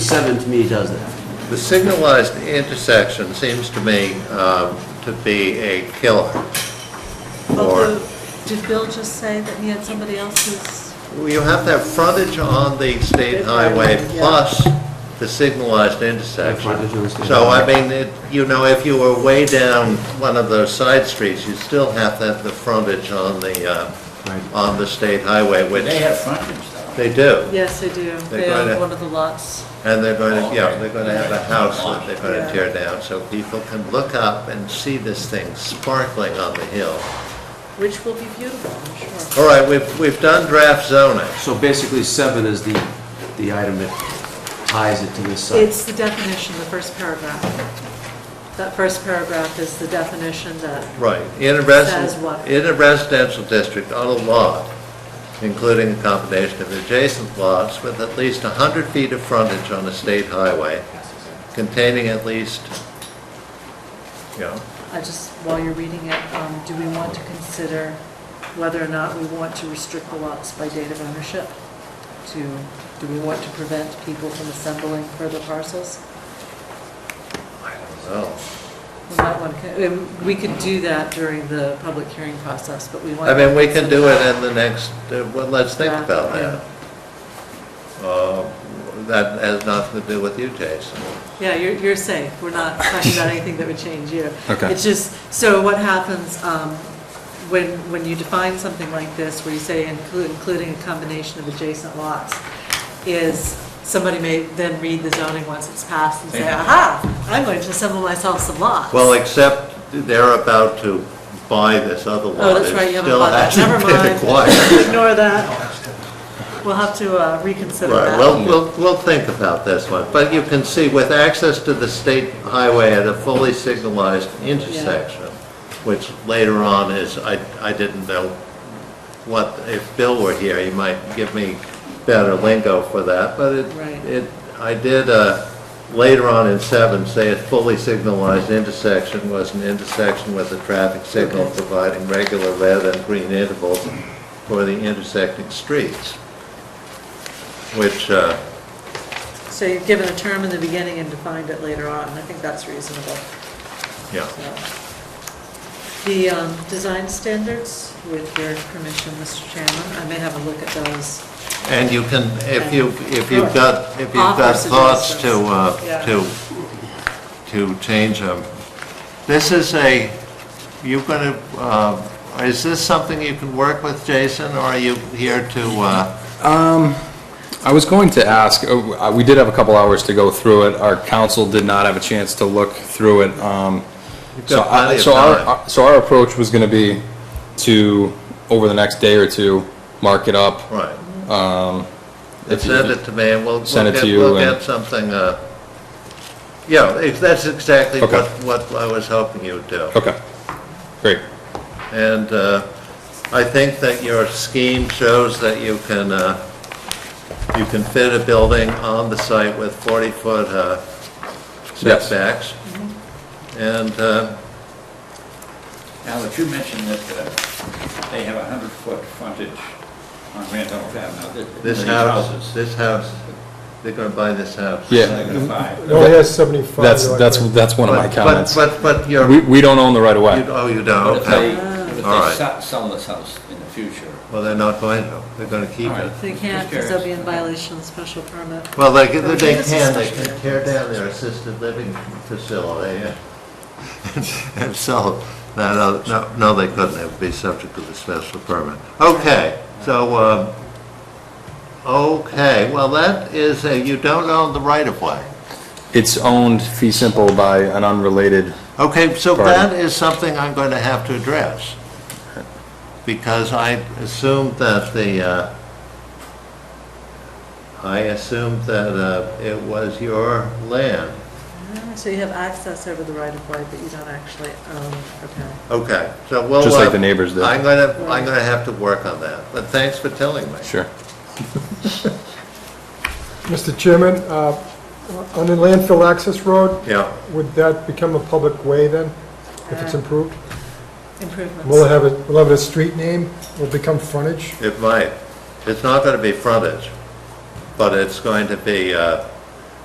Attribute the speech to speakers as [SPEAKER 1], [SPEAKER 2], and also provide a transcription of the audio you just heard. [SPEAKER 1] seven to me does that.
[SPEAKER 2] The signalized intersection seems to me um, to be a killer. Or,
[SPEAKER 3] Although, did Bill just say that he had somebody else's?
[SPEAKER 2] Well, you have to have frontage on the state highway plus the signalized intersection.
[SPEAKER 1] frontage on the state
[SPEAKER 2] So I
[SPEAKER 1] highway.
[SPEAKER 2] mean, it- you know, if you were way down one of those side streets, you still have to have the frontage on the, uh,
[SPEAKER 1] Right.
[SPEAKER 2] on the state highway, which
[SPEAKER 4] They have frontage though.
[SPEAKER 2] they do.
[SPEAKER 3] Yes, they do. They
[SPEAKER 2] They're gonna-
[SPEAKER 3] own one of the lots.
[SPEAKER 2] And they're going to, yeah,
[SPEAKER 4] Oh, Okay.
[SPEAKER 2] they're going to have a house that they're going
[SPEAKER 3] Yeah.
[SPEAKER 2] to tear down, so people can look up and see this thing sparkling on the hill.
[SPEAKER 3] Which will be beautiful, I'm sure.
[SPEAKER 2] All right, we've, we've done draft zoning.
[SPEAKER 1] So basically, seven is the, the item that ties it to this site.
[SPEAKER 3] It's the definition, the first paragraph. That first paragraph is the definition that,
[SPEAKER 2] Right, in a
[SPEAKER 3] Says
[SPEAKER 2] residential,
[SPEAKER 3] what?
[SPEAKER 2] in a residential district on a lot, including a combination of adjacent lots with at least 100 feet of frontage on a state highway containing at least, you know,
[SPEAKER 3] I just, while you're reading it, um, do we want to consider whether or not we want to restrict the lots by date of ownership? To, do we want to prevent people from assembling further parcels?
[SPEAKER 2] I don't know.
[SPEAKER 3] We might want to, um, we could do that during the public hearing process, but we want.
[SPEAKER 2] I mean, we can do it in the next, uh, well, let's think
[SPEAKER 3] Yeah,
[SPEAKER 2] about
[SPEAKER 3] yeah.
[SPEAKER 2] that. Uh, That has nothing to do with you, Jason.
[SPEAKER 3] Yeah, you're, you're safe. We're not talking about anything that would change you.
[SPEAKER 5] Okay.
[SPEAKER 3] It's just, so what happens um, when, when you define something like this, where you say inclu- including a combination of adjacent lots, is somebody may then read the zoning once it's passed and say,
[SPEAKER 4] Yeah.
[SPEAKER 3] aha, I'm going to assemble myself some lots.
[SPEAKER 2] Well, except they're about to buy this other lot.
[SPEAKER 3] Oh, that's right, you
[SPEAKER 2] It
[SPEAKER 3] haven't bought that.
[SPEAKER 2] still
[SPEAKER 3] Never
[SPEAKER 2] hasn't been
[SPEAKER 3] mind.
[SPEAKER 2] acquired.
[SPEAKER 3] Ignore that. We'll have to uh, reconsider
[SPEAKER 2] Right,
[SPEAKER 3] that.
[SPEAKER 2] well, we'll, we'll think about this one, but you can see with access to the state highway at a fully signalized intersection, which later on is, I, I didn't know what, if Bill were here, he might give me better lingo for that, but it,
[SPEAKER 3] Right.
[SPEAKER 2] it, I did, uh, later on in seven, say a fully signalized intersection was an intersection with a traffic signal
[SPEAKER 3] Okay.
[SPEAKER 2] providing regular red and green intervals for the intersecting streets, which, uh,
[SPEAKER 3] So you've given a term in the beginning and defined it later on, and I think that's reasonable.
[SPEAKER 2] yeah.
[SPEAKER 3] The um, design standards, with your permission, Mr. Chairman, I may have a look at those.
[SPEAKER 2] And you can, if you, if you've
[SPEAKER 3] Sure.
[SPEAKER 2] got, if you've got
[SPEAKER 3] Offer
[SPEAKER 2] thoughts to,
[SPEAKER 3] suggestions.
[SPEAKER 2] uh,
[SPEAKER 3] Yeah.
[SPEAKER 2] to, to change them. This is a, you're gonna, uh, is this something you can work with, Jason, or are you here to, uh,
[SPEAKER 5] I was going to ask, uh, we did have a couple hours to go through it. Our council did not have a chance to look through it. um,
[SPEAKER 2] You've
[SPEAKER 5] So
[SPEAKER 2] got plenty
[SPEAKER 5] I-
[SPEAKER 2] of
[SPEAKER 5] so our
[SPEAKER 2] time.
[SPEAKER 5] our- So our approach was going to be to, over the next day or two, mark it up.
[SPEAKER 2] right?
[SPEAKER 5] Um, if you-
[SPEAKER 2] Send it to me, and we'll,
[SPEAKER 5] Send
[SPEAKER 2] we'll
[SPEAKER 5] it to
[SPEAKER 2] get,
[SPEAKER 5] you
[SPEAKER 2] we'll
[SPEAKER 5] and-
[SPEAKER 2] get something, uh, yeah, if that's exactly
[SPEAKER 5] Okay.
[SPEAKER 2] what, what I was hoping you'd do.
[SPEAKER 5] Okay, great.
[SPEAKER 2] And uh, I think that your scheme shows that you can, uh, you can fit a building on the site with 40-foot uh,
[SPEAKER 5] Yes.
[SPEAKER 2] setbacks.
[SPEAKER 4] Mm-hmm.
[SPEAKER 2] And, uh,
[SPEAKER 4] Now that you mentioned that uh, they have a hundred foot frontage on Randolph Avenue. that-
[SPEAKER 2] this
[SPEAKER 4] these
[SPEAKER 2] house,
[SPEAKER 4] houses,
[SPEAKER 2] this house, they're going to buy this house.
[SPEAKER 5] Yeah.
[SPEAKER 4] they're gonna buy.
[SPEAKER 6] It only has 75.
[SPEAKER 5] That's,
[SPEAKER 6] like
[SPEAKER 5] that's,
[SPEAKER 6] that.
[SPEAKER 5] that's one of my
[SPEAKER 2] But-
[SPEAKER 5] comments.
[SPEAKER 2] But, but, but you're,
[SPEAKER 5] We,
[SPEAKER 2] you-
[SPEAKER 5] we don't own the right of way.
[SPEAKER 2] oh, you don't,
[SPEAKER 4] But if they,
[SPEAKER 2] okay.
[SPEAKER 4] but if
[SPEAKER 2] All
[SPEAKER 4] they
[SPEAKER 2] right.
[SPEAKER 4] se- sell this house in the future,
[SPEAKER 2] Well, they're not going to, they're going to keep
[SPEAKER 4] All
[SPEAKER 2] it.
[SPEAKER 4] right.
[SPEAKER 3] They can't, because they'll be in violation of the special permit.
[SPEAKER 2] Well, they, can- they
[SPEAKER 3] This is
[SPEAKER 2] can, they
[SPEAKER 3] special.
[SPEAKER 2] can tear down their assisted living facility and- and sell that, other- no, no, they couldn't, it would be subject to the special permit. Okay, so, um, okay, well, that is, a- you don't own the right of way.
[SPEAKER 5] It's owned fee simple by an unrelated,
[SPEAKER 2] Okay, so
[SPEAKER 5] Pardon?
[SPEAKER 2] that is something I'm going to have to address, because I assumed that the, uh, I assumed that uh, it was your land.
[SPEAKER 3] Ah, So you have access over the right of way, but you don't actually own, okay.
[SPEAKER 2] Okay, so we'll.
[SPEAKER 5] Just like
[SPEAKER 2] uh,
[SPEAKER 5] the neighbors did.
[SPEAKER 2] I'm gonna, I'm gonna have to work on that, but thanks for telling me.
[SPEAKER 5] sure.
[SPEAKER 6] Mr. Chairman, uh, on the landfill access road,
[SPEAKER 2] Yeah,
[SPEAKER 6] would that become a public way then, if it's improved? Will it
[SPEAKER 3] Improvements.
[SPEAKER 6] have, a- will it have a street name, will it become frontage?
[SPEAKER 2] it might. It's not gonna be frontage, but it's going to be, uh,